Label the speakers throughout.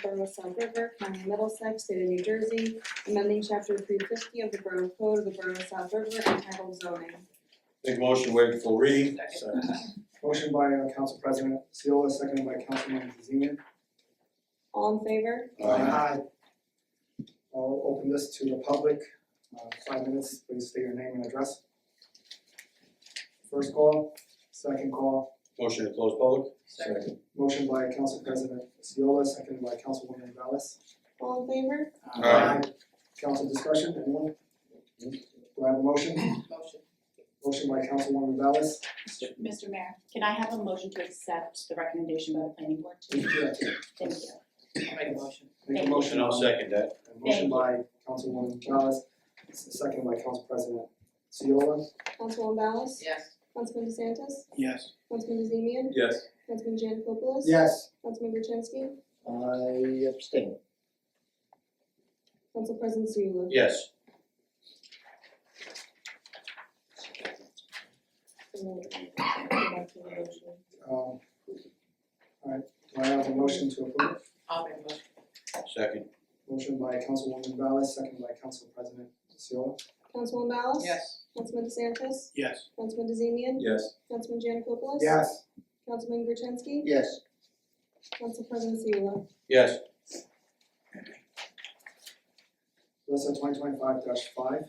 Speaker 1: from the South River, County of Middlesex, State of New Jersey, amending Chapter three fifty of the Borough Code of the Borough of South River entitled zoning.
Speaker 2: Make a motion, to waive the full reading.
Speaker 3: Motion by uh, Council President Seola, seconded by Councilman Zeman.
Speaker 1: All in favor?
Speaker 2: Aye.
Speaker 3: I'll open this to the public. Uh, Five minutes, please state your name and address. First call, second call.
Speaker 2: Motion to close public? Second.
Speaker 3: Motion by Council President Seola, seconded by Councilwoman Ballas.
Speaker 1: All in favor?
Speaker 2: Aye.
Speaker 3: Council discussion, anyone? Do I have a motion?
Speaker 4: Motion.
Speaker 3: Motion by Councilwoman Ballas.
Speaker 5: Mr. Mayor, can I have a motion to accept the recommendation by the planning board?
Speaker 3: Thank you.
Speaker 5: Thank you.
Speaker 4: I'll make a motion.
Speaker 3: Make a
Speaker 5: Thank you.
Speaker 3: motion.
Speaker 2: And I'll second that.
Speaker 3: A Motion by Councilwoman Ballas, second by Council President Seola.
Speaker 1: Councilwoman Ballas?
Speaker 4: Yes.
Speaker 1: Councilman DeSantis?
Speaker 6: Yes.
Speaker 1: Councilman DeZemian?
Speaker 2: Yes.
Speaker 1: Councilman Janikopoulos?
Speaker 3: Yes.
Speaker 1: Councilman Gertenski?
Speaker 6: I abstain.
Speaker 1: Council President Seula?
Speaker 2: Yes.
Speaker 3: Um, alright, do I have a motion to approve?
Speaker 4: I'll make a motion.
Speaker 2: Second.
Speaker 3: Motion by Councilwoman Ballas, second by Council President Seola.
Speaker 1: Councilwoman Ballas?
Speaker 4: Yes.
Speaker 1: Councilman DeSantis?
Speaker 6: Yes.
Speaker 1: Councilman DeZemian?
Speaker 2: Yes.
Speaker 1: Councilman Janikopoulos?
Speaker 3: Yes.
Speaker 1: Councilman Gertenski?
Speaker 6: Yes.
Speaker 1: Council President Seula?
Speaker 2: Yes.
Speaker 3: Alyssa, twenty twenty-five five,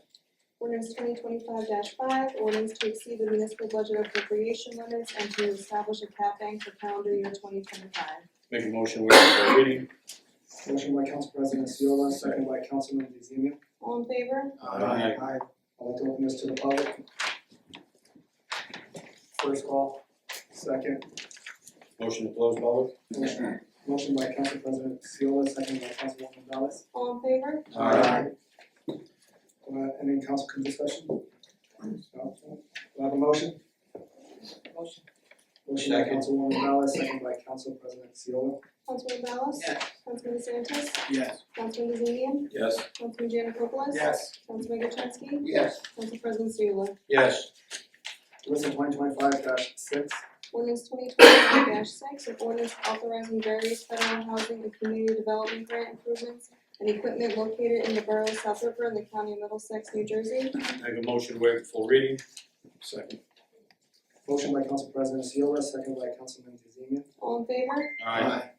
Speaker 1: Ordinance twenty twenty-five five, ordinance to exceed the municipal budget appropriation limits and to establish a cap bank for calendar year twenty twenty-five.
Speaker 2: Make a motion, to waive the full reading.
Speaker 3: motion by Council President Seola, second by Councilman DeZemian.
Speaker 1: All in favor?
Speaker 2: Aye.
Speaker 3: Aye. I'd like to open this to the public. First call, second,
Speaker 2: Motion to close public?
Speaker 3: motion, motion by Council President Seola, second by Councilwoman Ballas.
Speaker 1: All in favor?
Speaker 2: Aye.
Speaker 3: Uh, any council discussion? No? Do I have a motion?
Speaker 4: Motion.
Speaker 3: Motion by
Speaker 2: Second.
Speaker 3: Councilwoman Ballas, second by Council President Seola.
Speaker 1: Councilman Ballas?
Speaker 4: Yes.
Speaker 1: Councilman DeSantis?
Speaker 6: Yes.
Speaker 1: Councilman DeZemian?
Speaker 2: Yes.
Speaker 1: Councilman Janikopoulos? Councilman Gertenski?
Speaker 6: Yes.
Speaker 1: Council President Seula?
Speaker 2: Yes.
Speaker 3: Listen, twenty twenty-five dash six,
Speaker 1: Ordinance twenty twenty-five six, an ordinance authorizing various federal housing and community development grant improvements and equipment located in the borough of South River in the county of Middlesex, New Jersey.
Speaker 2: Make a motion, to waive the full reading. Second.
Speaker 3: motion by Council President Seola, second by Councilman DeZemian.
Speaker 1: All in favor?
Speaker 2: Aye.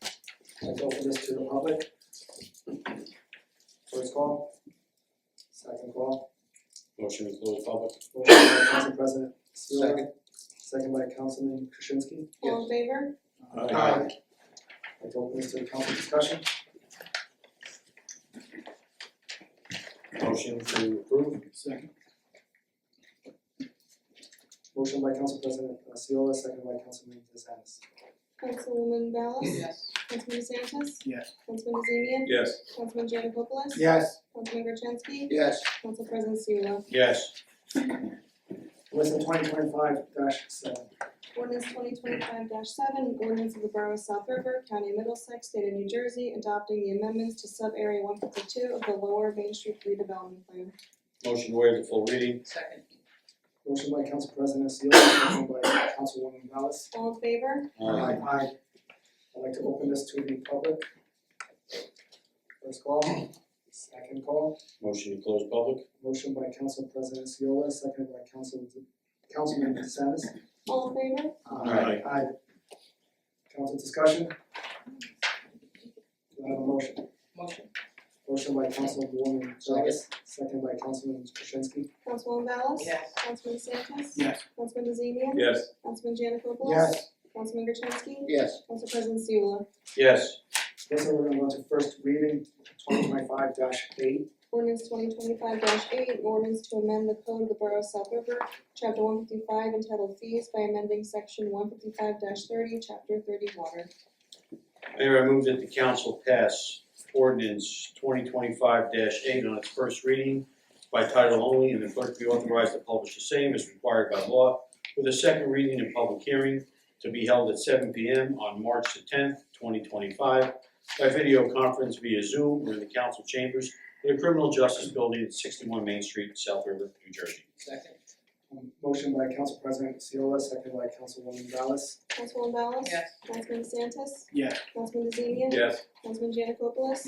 Speaker 3: Let's open this to the public. First call, second call,
Speaker 2: Motion to close public?
Speaker 3: motion by Council President Seola. Second. by Councilman Krasinski.
Speaker 1: All in favor?
Speaker 2: Aye.
Speaker 3: Let's open this to the council discussion.
Speaker 2: Motion to approve?
Speaker 6: Second.
Speaker 3: Motion by Council President uh, Seola, second by Councilman DeSantis.
Speaker 1: Councilwoman Ballas?
Speaker 4: Yes.
Speaker 1: Councilman DeSantis?
Speaker 6: Yes.
Speaker 1: Councilman DeZemian?
Speaker 2: Yes.
Speaker 1: Councilman Janikopoulos?
Speaker 6: Yes.
Speaker 1: Councilman Gertenski?
Speaker 6: Yes.
Speaker 1: Council President Seula?
Speaker 2: Yes.
Speaker 3: Listen, twenty twenty-five seven,
Speaker 1: Ordinance twenty twenty-five seven, ordinance of the Borough of South River, County of Middlesex, State of New Jersey, adopting the amendments to sub-area one fifty-two of the Lower Main Street redevelopment plan.
Speaker 2: Motion to waive the full reading?
Speaker 4: Second.
Speaker 3: motion by Council President Seola, second by Councilwoman Ballas.
Speaker 1: All in favor?
Speaker 3: Aye. I'd like to open this to the public. First call, second call,
Speaker 2: Motion to close public?
Speaker 3: motion by Council President Seola, second by Council, Councilman DeSantis.
Speaker 1: All in favor?
Speaker 2: Aye.
Speaker 3: Aye. Council discussion? Do I have a motion?
Speaker 4: Motion.
Speaker 3: Motion by Councilwoman Jarvis, second by Councilman Krasinski.
Speaker 1: Councilwoman Ballas?
Speaker 4: Yes.
Speaker 1: Councilman DeSantis?
Speaker 6: Yes.
Speaker 1: Councilman DeZemian?
Speaker 2: Yes.
Speaker 1: Councilman Janikopoulos? Councilman Gertenski?
Speaker 6: Yes.
Speaker 1: Council President Seula?
Speaker 2: Yes.
Speaker 3: This one we're gonna go to first reading, twenty twenty-five eight.
Speaker 1: Ordinance twenty twenty-five eight, ordinance to amend the code of the Borough of South River, chapter one fifty-five entitled fees by amending section one fifty-five thirty, chapter thirty water.
Speaker 2: Mayor, I move that the council pass ordinance twenty twenty-five eight on its first reading by title only, and the clerk be authorized to publish the same as required by law, with a second reading and public hearing to be held at seven P M on March the tenth, twenty twenty-five, by video conference via Zoom or in the council chambers in the Criminal Justice Building at sixty-one Main Street, South River, New Jersey.
Speaker 4: Second.
Speaker 3: Um, Motion by Council President Seola, second by Councilwoman Ballas.
Speaker 1: Councilwoman Ballas?
Speaker 4: Yes.
Speaker 1: Councilman DeSantis?
Speaker 3: Yeah.
Speaker 1: Councilman DeZemian?
Speaker 2: Yes.
Speaker 1: Councilman Janikopoulos?